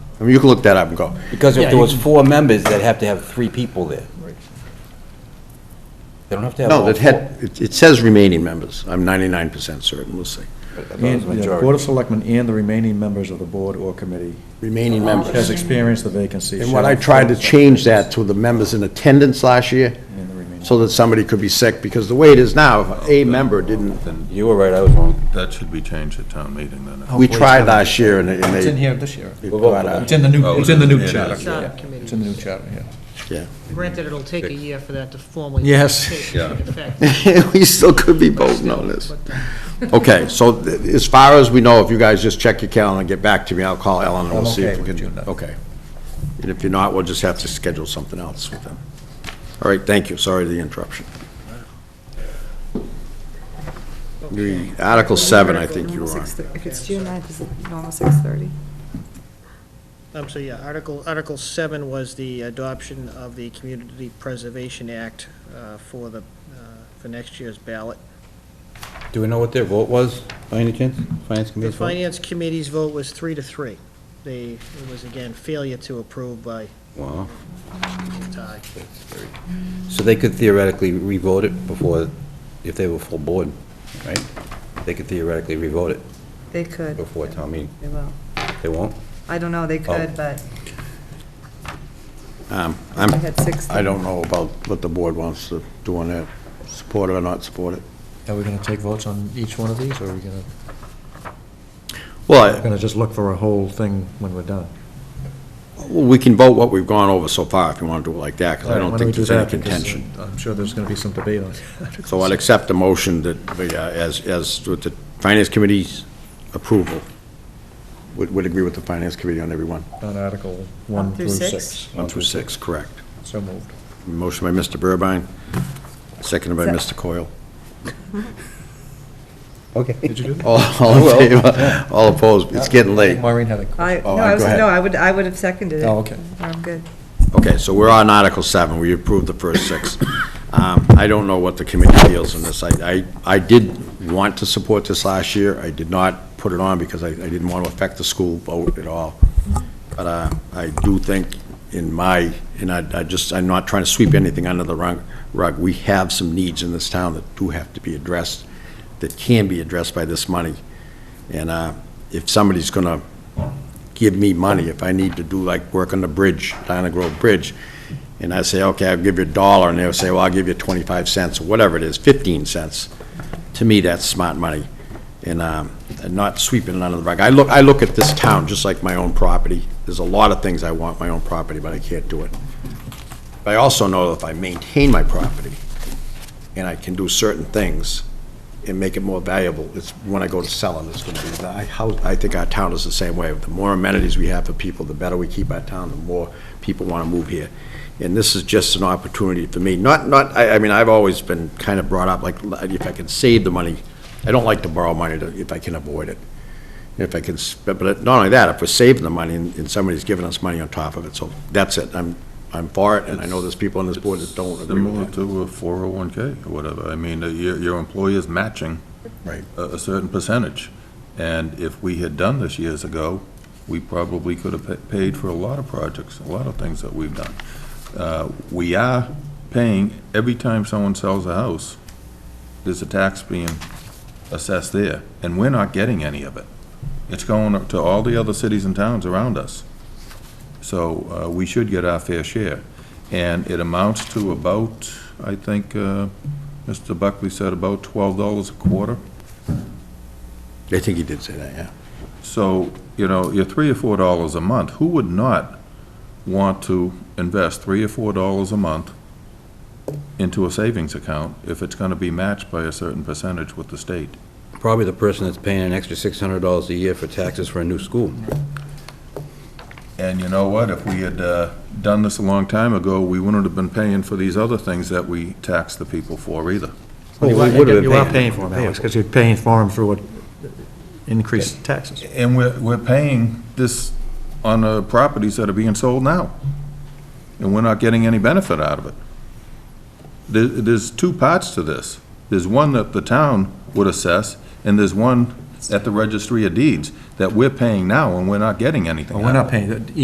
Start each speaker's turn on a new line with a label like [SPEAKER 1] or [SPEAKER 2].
[SPEAKER 1] I mean, you can look that up and go.
[SPEAKER 2] Because
[SPEAKER 3] Yeah,
[SPEAKER 2] if there
[SPEAKER 3] you
[SPEAKER 2] was
[SPEAKER 3] can-
[SPEAKER 2] four members, they'd have to have three people there. They don't have to have
[SPEAKER 1] No,
[SPEAKER 2] all
[SPEAKER 1] that
[SPEAKER 2] four.
[SPEAKER 1] had, it it says remaining members. I'm 99% certain, we'll see.
[SPEAKER 2] but I thought it was
[SPEAKER 4] And, yeah,
[SPEAKER 2] majority.
[SPEAKER 4] Board of Selectmen and the remaining members of the board or committee
[SPEAKER 1] Remaining members.
[SPEAKER 4] has experienced the vacancy.
[SPEAKER 1] And
[SPEAKER 4] shall
[SPEAKER 1] what I tried to
[SPEAKER 4] fill-
[SPEAKER 1] change that to the members in attendance last year,
[SPEAKER 4] And the remaining.
[SPEAKER 1] so that somebody could be sick, because the way it is now, if a member didn't,
[SPEAKER 5] Then
[SPEAKER 2] You were right, I was wrong.
[SPEAKER 5] that should be changed at town meeting then.
[SPEAKER 1] we tried last year and they- and
[SPEAKER 3] It's in
[SPEAKER 1] they.
[SPEAKER 3] here this year.
[SPEAKER 1] it
[SPEAKER 2] We'll vote
[SPEAKER 1] got
[SPEAKER 2] for
[SPEAKER 1] out.
[SPEAKER 3] It's in the new,
[SPEAKER 5] Oh,
[SPEAKER 3] it's in the
[SPEAKER 5] it
[SPEAKER 3] new
[SPEAKER 5] is,
[SPEAKER 3] chapter.
[SPEAKER 5] yeah.
[SPEAKER 3] Yeah, It's in the new chapter, yeah.
[SPEAKER 6] Granted, it'll take a year for that to formally.
[SPEAKER 4] Yes.
[SPEAKER 6] take
[SPEAKER 5] Yeah.
[SPEAKER 6] effect.
[SPEAKER 1] We still could be voting on this.
[SPEAKER 6] But, uh,
[SPEAKER 1] Okay, so th- as far as we know, if you guys just check your calendar and get back to me, I'll call Ellen and
[SPEAKER 4] I'm
[SPEAKER 1] we'll see
[SPEAKER 4] okay
[SPEAKER 1] if we can.
[SPEAKER 4] with June ninth.
[SPEAKER 1] Okay. And if you're not, we'll just have to schedule something else with them. All right, thank you, sorry for the interruption. The Article 7, I think you were on.
[SPEAKER 7] If it's June 9th, is it normal 6:30?
[SPEAKER 6] Um, so yeah, Article, Article seven was the adoption of the Community Preservation Act, uh, for the, uh, for next year's ballot.
[SPEAKER 2] Do we know what their vote was, by any chance? Finance
[SPEAKER 6] The
[SPEAKER 2] committee's vote?
[SPEAKER 6] Finance Committee's vote was three to three. They, it was again failure to approve by
[SPEAKER 2] Wow.
[SPEAKER 6] tie.
[SPEAKER 2] So they could theoretically revote it before, if they were full board, right? They could theoretically revote it
[SPEAKER 7] They
[SPEAKER 1] Oh.
[SPEAKER 7] could,
[SPEAKER 2] before town meeting.
[SPEAKER 7] they will.
[SPEAKER 2] They won't?
[SPEAKER 7] I don't know, they could, but
[SPEAKER 1] Um,
[SPEAKER 7] I
[SPEAKER 1] I'm,
[SPEAKER 7] had six.
[SPEAKER 1] I don't know about what the board wants to do on that, support it or not support it.
[SPEAKER 4] Are we going to take votes on each one of these, or are we going to,
[SPEAKER 1] Well,
[SPEAKER 4] going to just look for a whole thing when we're done?
[SPEAKER 1] I- we can vote what we've gone over so far if you want to do it like that, because I
[SPEAKER 4] Why
[SPEAKER 1] don't
[SPEAKER 4] we
[SPEAKER 1] think
[SPEAKER 4] do
[SPEAKER 1] there's any
[SPEAKER 4] that, because, uh,
[SPEAKER 1] contention.
[SPEAKER 4] I'm sure there's going to be some debate on it.
[SPEAKER 1] So I'll accept the motion that, the, uh, as, as with the Finance Committee's approval, would, would agree with the Finance Committee on every one.
[SPEAKER 4] On Article 1
[SPEAKER 7] through
[SPEAKER 4] through
[SPEAKER 7] six?
[SPEAKER 4] 6.
[SPEAKER 1] One through six, correct.
[SPEAKER 4] So moved.
[SPEAKER 1] Motion by Mr. Burbine, seconded by Mr. Coyle.
[SPEAKER 2] Okay.
[SPEAKER 1] All all in favor, all opposed, it's getting late.
[SPEAKER 4] Maureen had a
[SPEAKER 7] I, no,
[SPEAKER 1] Oh,
[SPEAKER 7] I was,
[SPEAKER 1] go ahead.
[SPEAKER 7] no, I would, I would have seconded it.
[SPEAKER 4] Oh, okay.
[SPEAKER 7] I'm good.
[SPEAKER 1] Okay, so we're on Article 7, we approved the first six. Um, I don't know what the committee feels on this. I, I I did want to support this last year, I did not put it on because I I didn't want to affect the school vote at all. But uh, I do think in my, and I I just, I'm not trying to sweep anything under the rug, rug. we have some needs in this town that do have to be addressed, that can be addressed by this money. And uh, if somebody's going to give me money if I need to do like work on the bridge, Diana Grove Bridge. And I say, okay, I'll give you a dollar, and they'll say, well, I'll give you 25 cents, or whatever it is, 15 cents. To me, that's smart money, and um, and not sweeping it under the rug. I look, I look at this town just like my own property. There's a lot of things I want my own property, but I can't do it. But I also know if I maintain my property, and I can do certain things and make it more valuable, it's when I go to sell it, it's gonna be, I, how, I think our town is the same way. The more amenities we have for people, the better we keep our town, the more people wanna move here. And this is just an opportunity for me, not, not, I, I mean, I've always been kind of brought up, like, if I can save the money, I don't like to borrow money to- if I can avoid it. If I can, s- but but not only that, if we're saving the money and and somebody's giving us money on top of it, so that's it. I'm, I'm for it, and I know there's people on this board that don't agree with that.
[SPEAKER 5] Similar to a 401K or whatever. I mean, uh, your, your employer's matching.
[SPEAKER 1] Right.
[SPEAKER 5] A, a certain percentage. And if we had done this years ago, we probably could have pa- paid for a lot of projects, a lot of things that we've done. Uh, We are paying, every time someone sells a house, there's a tax being assessed there, and we're not getting any of it. It's going up to all the other cities and towns around us. So uh, we should get our fair share. And it amounts to about, I think, uh, Mr. Buckley said about $12 a quarter.
[SPEAKER 1] I think he did say that, yeah.
[SPEAKER 5] So, you know, you're three or four dollars a month, who would not want to invest three or four dollars a month into a savings account if it's gonna be matched by a certain percentage with the state?
[SPEAKER 2] Probably the person that's paying an extra $600 a year for taxes for a new school.
[SPEAKER 5] And you know what, if we had, uh, done this a long time ago, we wouldn't have been paying for these other things that we tax the people for either.
[SPEAKER 2] Well, we would've been
[SPEAKER 4] You are
[SPEAKER 2] paying.
[SPEAKER 4] paying for them, Alex, because you're paying for them through uh, increased taxes.
[SPEAKER 5] And we're, we're paying this on the properties that are being sold now. And we're not getting any benefit out of it. There, there's two parts to this. There's one that the town would assess, and there's one at the registry of deeds that we're paying now, and we're not getting anything
[SPEAKER 4] Well, we're
[SPEAKER 5] out of
[SPEAKER 4] not
[SPEAKER 5] it.
[SPEAKER 4] paying,